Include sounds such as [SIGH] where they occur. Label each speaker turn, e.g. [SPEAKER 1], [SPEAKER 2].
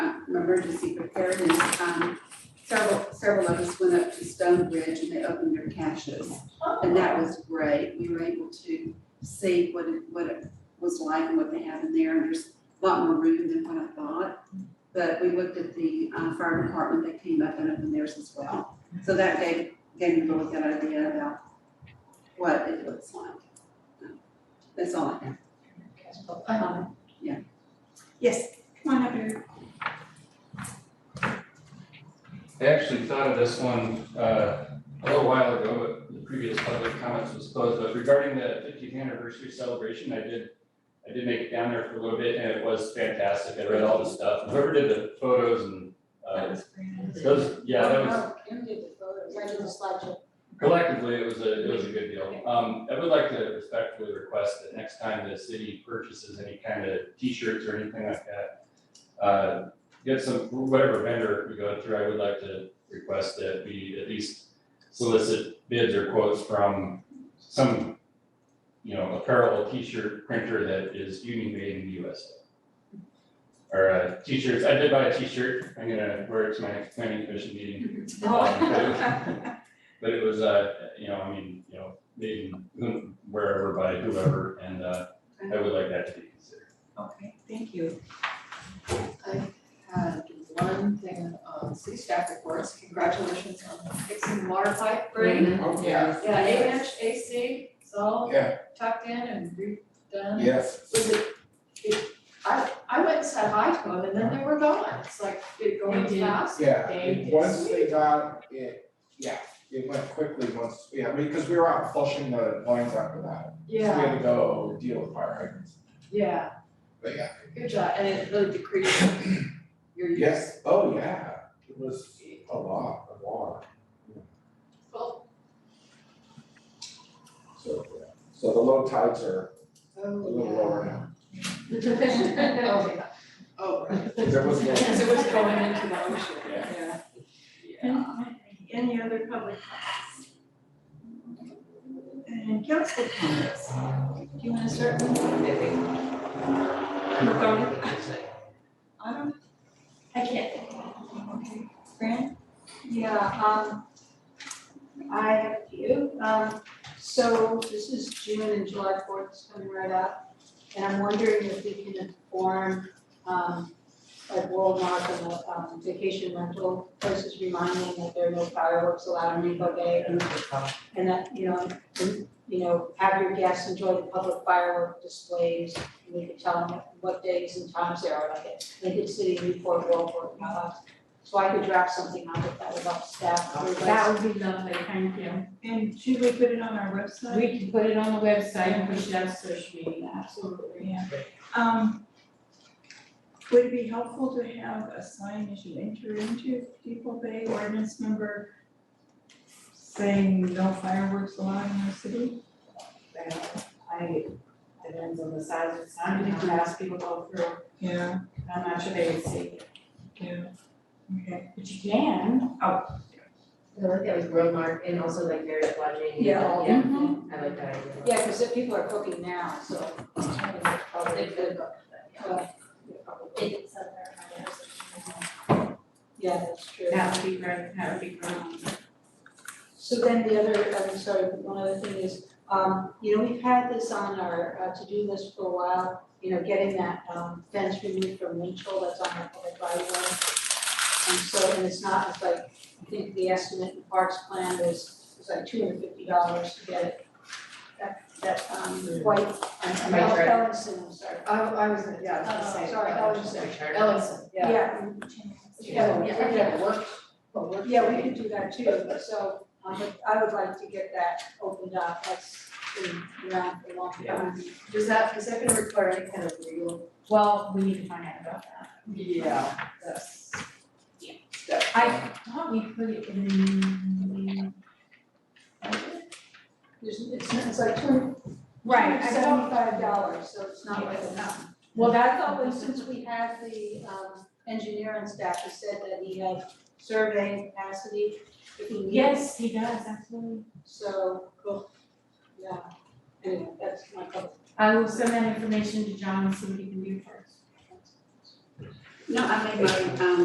[SPEAKER 1] uh, emergency preparedness, um, several, several of us went up to Stone Bridge and they opened their caches. And that was great. We were able to see what it, what it was like and what they have in there. And there's a lot more room than what I thought. But we looked at the, uh, fire department, they came up and opened theirs as well. So that gave, gave me a really good idea about what it looks like. That's all I have.
[SPEAKER 2] Um,
[SPEAKER 1] Yeah.
[SPEAKER 2] Yes, come on up here.
[SPEAKER 3] I actually thought of this one uh, a little while ago, but the previous public comments was closed, but regarding the fiftieth anniversary celebration, I did, I did make it down there for a little bit, and it was fantastic, I read all the stuff, whoever did the photos and uh, those, yeah, that was,
[SPEAKER 4] Kim did the photos, I did the slideshow.
[SPEAKER 3] collectively, it was a, it was a good deal. Um, I would like to respectfully request that next time the city purchases any kind of t-shirts or anything like that, uh, get some, whatever vendor we go through, I would like to request that we at least solicit bids or quotes from some, you know, apparel, t-shirt printer that is union made in the USA. Or, uh, t-shirts, I did buy a t-shirt, I'm gonna wear it to my next planning commission meeting.
[SPEAKER 5] Oh.
[SPEAKER 3] Um, but it was, uh, you know, I mean, you know, made in wherever by whoever, and, uh, I would like that to be considered.
[SPEAKER 2] Okay, thank you.
[SPEAKER 4] Had one thing on city staff reports, congratulations on fixing the water pipe
[SPEAKER 2] Mm-hmm.
[SPEAKER 4] break.
[SPEAKER 5] Oh, [LAUGHS] yeah.
[SPEAKER 4] Yeah, eight inch AC, it's all
[SPEAKER 5] Yeah,
[SPEAKER 4] tucked in and redone.
[SPEAKER 5] yes.
[SPEAKER 4] Was it, it, I, I went and said hi to them and then they were gone, it's like, did it go
[SPEAKER 2] They did.
[SPEAKER 4] fast?
[SPEAKER 5] Yeah,
[SPEAKER 4] They did.
[SPEAKER 5] once they got it, yeah, it went quickly once, yeah, because we were out flushing the lines after that. So we
[SPEAKER 4] Yeah,
[SPEAKER 5] had to go deal with fire hydrants.
[SPEAKER 4] yeah,
[SPEAKER 5] But yeah,
[SPEAKER 4] good job, and it really decreased your use.
[SPEAKER 5] yes, oh yeah, it was a lot of water,
[SPEAKER 4] Well,
[SPEAKER 5] so, yeah. So the low tides are a
[SPEAKER 4] oh,
[SPEAKER 5] little lower now.
[SPEAKER 4] yeah. Okay. Oh, right.
[SPEAKER 5] There was no,
[SPEAKER 4] Because it was going into
[SPEAKER 5] [LAUGHS]
[SPEAKER 4] the ocean,
[SPEAKER 5] Yeah.
[SPEAKER 4] yeah.
[SPEAKER 2] Any other public comments? And council comments? Do you want to start with me, Vivi? Or go to- I don't, I can't. Okay, Fran?
[SPEAKER 6] Yeah, um, I have a few. Um, so this is June and July fourth is coming right up. And I'm wondering if we can inform, um, like Walmart and the um, vacation rental places reminding that there are no fireworks allowed on Rainbow Day. And- And that, you know, and, you know, have your guests enjoy the public firework displays. And we could tell them what days and times there are, like at Lincoln City, Newport, Walport, blah, blah, so I could draft something out if that would help staff, everybody.
[SPEAKER 2] would be lovely, thank you. And should we put it on our website?
[SPEAKER 7] We can put it on the website and push it out to social media, absolutely.
[SPEAKER 2] Yeah. Um, would it be helpful to have a sign as you enter into Depot Bay ordinance number saying no fireworks allowed in the city?
[SPEAKER 7] I, depends on the size of the sign, you know, ask people go through,
[SPEAKER 2] Yeah,
[SPEAKER 7] how much they would see,
[SPEAKER 2] yeah. Okay,
[SPEAKER 7] but you can.
[SPEAKER 8] I like that with World Mark and also like Meredith Lodging.
[SPEAKER 6] Yeah.
[SPEAKER 8] Yeah,
[SPEAKER 4] Mm-hmm.
[SPEAKER 8] I like that idea.
[SPEAKER 6] Yeah, because if people are cooking now, so. it's kind of probably good, but- uh, Yeah, that's true.
[SPEAKER 7] That would be great, that would be great.
[SPEAKER 6] So then the other, I'm sorry, one other thing is, um, you know, we've had this on our uh, to-do list for a while, you know, getting that um, fence removed from Winchell that's on the public right of way. And so, and it's not, it's like, I think the estimate in Parks Plan was, was like two hundred fifty dollars to get it. That, that, um, white, I'm,
[SPEAKER 8] Right, right.
[SPEAKER 6] Ellison, I'm sorry.
[SPEAKER 4] I, I was, yeah, I was gonna
[SPEAKER 6] Oh,
[SPEAKER 4] say.
[SPEAKER 6] sorry,
[SPEAKER 4] Uh, that.
[SPEAKER 6] Ellison.
[SPEAKER 4] Ellison, yeah.
[SPEAKER 6] Yeah,
[SPEAKER 4] Yeah, we could have worked, but worked.
[SPEAKER 6] Yeah, we can do that too, so, um, but I would like to get that opened up, that's been around for a long time.
[SPEAKER 4] Does that, is that gonna require any kind of legal?
[SPEAKER 7] Well, we need to find out about that.
[SPEAKER 4] Yeah, that's.
[SPEAKER 7] Yeah.
[SPEAKER 4] That-
[SPEAKER 7] I thought we put it in.
[SPEAKER 6] There's, it's, it's like two
[SPEAKER 7] Right, I thought,
[SPEAKER 6] seventy-five dollars, so it's not like enough.
[SPEAKER 7] well,
[SPEAKER 6] I
[SPEAKER 7] that's
[SPEAKER 6] thought, well,
[SPEAKER 7] always,
[SPEAKER 6] since we have the, um, engineer and staff, who said that he had surveying capacity, if he needed.
[SPEAKER 7] yes, he does, absolutely.
[SPEAKER 6] So, cool, yeah, anyway, that's my couple.
[SPEAKER 7] I will send that information to John and see what he can do first.
[SPEAKER 1] No, I made my, um,